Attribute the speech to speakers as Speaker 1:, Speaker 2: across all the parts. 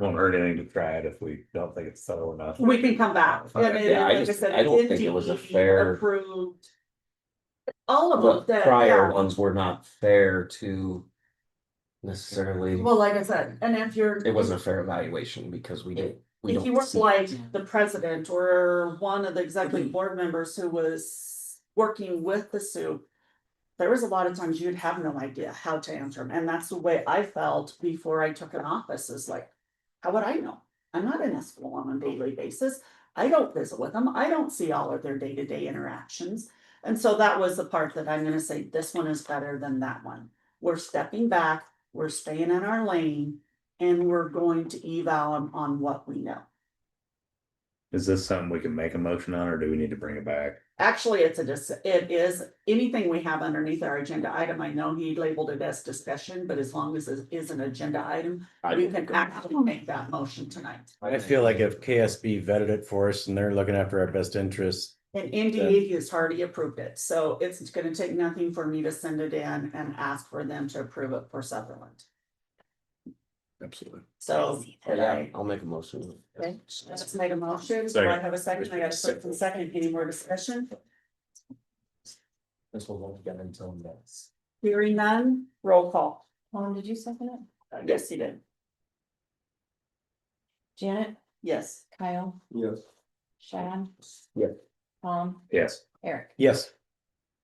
Speaker 1: won't hurt anything to try it if we don't think it's subtle enough.
Speaker 2: We can come back. I mean,
Speaker 3: Uh, Yeah, I
Speaker 2: like
Speaker 3: just-
Speaker 2: said,
Speaker 3: I don't think it
Speaker 2: it's
Speaker 3: was a
Speaker 2: NDE
Speaker 3: fair-
Speaker 2: Approved. All
Speaker 3: The
Speaker 2: of them,
Speaker 3: prior
Speaker 2: yeah,
Speaker 3: ones were not fair to necessarily,
Speaker 2: well, like I said, and if you're.
Speaker 3: it wasn't a fair evaluation because we didn't. we
Speaker 2: If you
Speaker 3: don't
Speaker 2: were
Speaker 3: see- Mm-hmm.
Speaker 2: like the president or one of the executive board members who was working with the soup. There was a lot of times you'd have no idea how to answer them, and that's the way I felt before I took an office is like. How would I know? I'm not in a school on a daily basis. I don't visit with them. I don't see all of their day-to-day interactions. And so that was the part that I'm gonna say, this one is better than that one. We're stepping back, we're staying in our lane. And we're going to eval 'em on what we know.
Speaker 1: Is this something we can make a motion on or do we need to bring it back?
Speaker 2: Actually, it's a, dis- it is, anything we have underneath our agenda item, I know he labeled it as discussion, but as long as it is an agenda item,
Speaker 3: I
Speaker 2: we
Speaker 3: don't
Speaker 2: can
Speaker 3: think-
Speaker 2: actually make that motion tonight.
Speaker 4: I feel like if KSB vetted it for us and they're looking after our best interests,
Speaker 2: And NDE has already approved it, so it's gonna take nothing for me to send it in and ask for them to approve it for Sutherland.
Speaker 3: Absolutely.
Speaker 2: So, did
Speaker 3: Yeah,
Speaker 2: I,
Speaker 3: I'll make a motion.
Speaker 2: Okay. I just made a motion, do I
Speaker 1: Second.
Speaker 2: have a second? I got a first and second, any more discussion?
Speaker 3: This will go together until next.
Speaker 2: Hearing none, roll call.
Speaker 5: Tom, did you second it?
Speaker 2: Yes, he did.
Speaker 5: Janet,
Speaker 2: Yes.
Speaker 5: Kyle,
Speaker 3: Yes.
Speaker 5: Shad?
Speaker 3: Yeah.
Speaker 5: Tom,
Speaker 1: Yes,
Speaker 5: Eric.
Speaker 4: yes,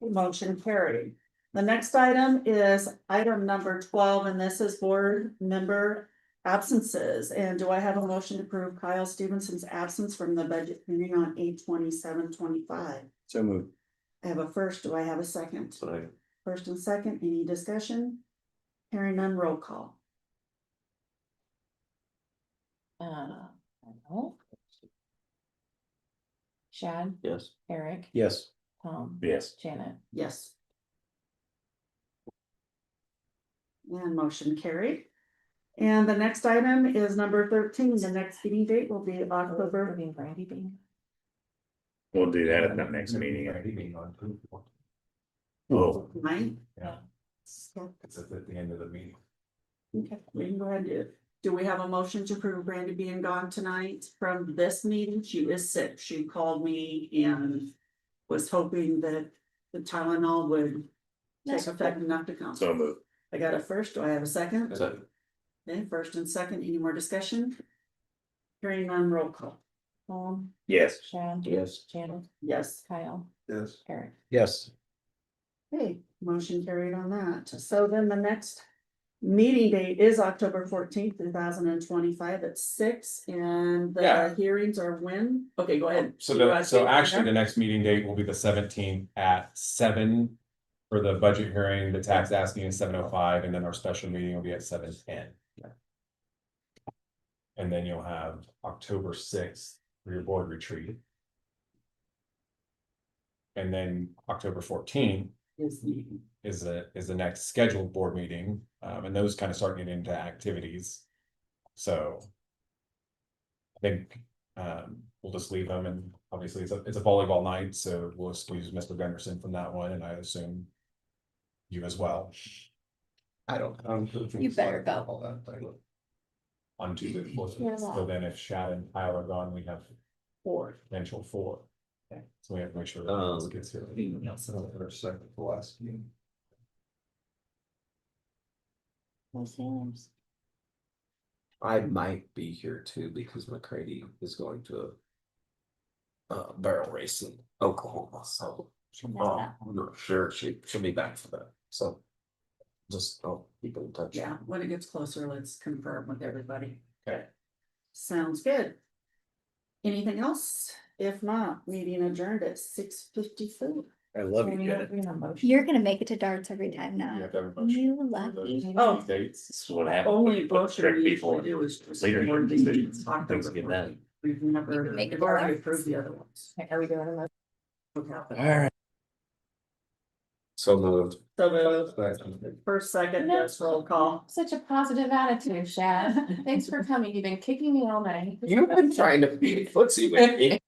Speaker 2: Motion carried. The next item is item number twelve, and this is board member absences. And do I have a motion to approve Kyle Stevenson's absence from the budget meeting on eight twenty-seven twenty-five?
Speaker 4: so move.
Speaker 2: I have a first, do I have a second?
Speaker 3: So
Speaker 2: First and second, any discussion? Hearing none, roll call.
Speaker 5: Uh, no. Shad,
Speaker 3: yes.
Speaker 5: Eric,
Speaker 4: Yes,
Speaker 5: Tom,
Speaker 1: yes.
Speaker 5: Janet.
Speaker 2: Yes. And motion carried. And the next item is number thirteen. The next meeting date will be October
Speaker 5: Being Brandy being.
Speaker 1: We'll do that at the next meeting. Oh.
Speaker 2: Right?
Speaker 5: Yeah.
Speaker 3: It's at the end of the meeting.
Speaker 2: Okay, we can go ahead and do it. Do we have a motion to approve Brandy being gone tonight from this meeting? She is sick. She called me and was hoping that the Tylenol would take effect enough to come.
Speaker 1: So moved.
Speaker 2: I got a first. Do I have a second?
Speaker 3: So,
Speaker 2: Okay, first and second. Any more discussion? Hearing none, roll call.
Speaker 5: Tom,
Speaker 1: Yes.
Speaker 5: Shad,
Speaker 3: yes.
Speaker 5: Janet,
Speaker 2: Yes.
Speaker 5: Kyle,
Speaker 3: Yes.
Speaker 5: Eric.
Speaker 4: yes,
Speaker 2: Okay, motion carried on that. So then the next meeting date is October fourteenth, two thousand and twenty-five at six, and the
Speaker 6: Yeah.
Speaker 2: hearings are when? Okay, go ahead.
Speaker 6: So
Speaker 2: You
Speaker 6: the,
Speaker 2: wanna
Speaker 6: so
Speaker 2: take it
Speaker 6: actually, the
Speaker 2: there?
Speaker 6: next meeting date will be the seventeenth at seven. For the budget hearing, the tax asking is seven oh five, and then our special meeting will be at seven ten. And then you'll have October sixth for your board retreat. And then October fourteenth
Speaker 2: Is meeting.
Speaker 6: is the, is the next scheduled board meeting, um, and those kind of start getting into activities. So. I think, um, we'll just leave them and obviously it's a, it's a volleyball night, so we'll squeeze Mr. Gunderson from that one and I assume. You as well
Speaker 3: I don't. I don't think
Speaker 5: You
Speaker 3: so.
Speaker 5: better go.
Speaker 3: All that, but-
Speaker 6: on Tuesday. the 14th.
Speaker 5: Yeah.
Speaker 6: So then if Shad and Kyle are gone, we have four, potential four. So we have to make sure. that
Speaker 3: Um,
Speaker 6: this gets here.
Speaker 3: Or second to last meeting. I might be here too because McCready is going to. a Uh, barrel race in Oklahoma, so. um, I'm not sure she, she'll be back for that, so. Just, I'll keep in touch.
Speaker 2: Yeah, when it gets closer, let's confirm with everybody.
Speaker 6: Okay.
Speaker 2: Sounds good. Anything else? If not, meeting adjourned at six fifty-four.
Speaker 4: I love you, Janet.
Speaker 7: You're gonna make it to darts every time
Speaker 6: You
Speaker 7: now.
Speaker 6: have to have a motion
Speaker 7: You
Speaker 6: for those
Speaker 7: lucky.
Speaker 2: Oh.
Speaker 6: Dates.
Speaker 1: This is what happens.
Speaker 2: Only
Speaker 1: when you put
Speaker 2: brochure
Speaker 1: trick
Speaker 2: we
Speaker 1: people
Speaker 2: usually
Speaker 1: in.
Speaker 2: do is just.
Speaker 1: Leader
Speaker 2: more than
Speaker 1: decisions,
Speaker 2: October
Speaker 1: things get done.
Speaker 2: 14th. We've never,
Speaker 5: can make
Speaker 2: we've
Speaker 5: it
Speaker 2: already
Speaker 5: work.
Speaker 2: approved the other ones.
Speaker 5: Are we doing a motion?
Speaker 2: What happened?
Speaker 4: All right.
Speaker 3: So moved.
Speaker 2: So the
Speaker 3: But-
Speaker 2: first, second, yes, roll call.
Speaker 5: Such a positive attitude, Shad. Thanks for coming. You've been kicking me all night.
Speaker 3: You've been trying to beat footsie with me.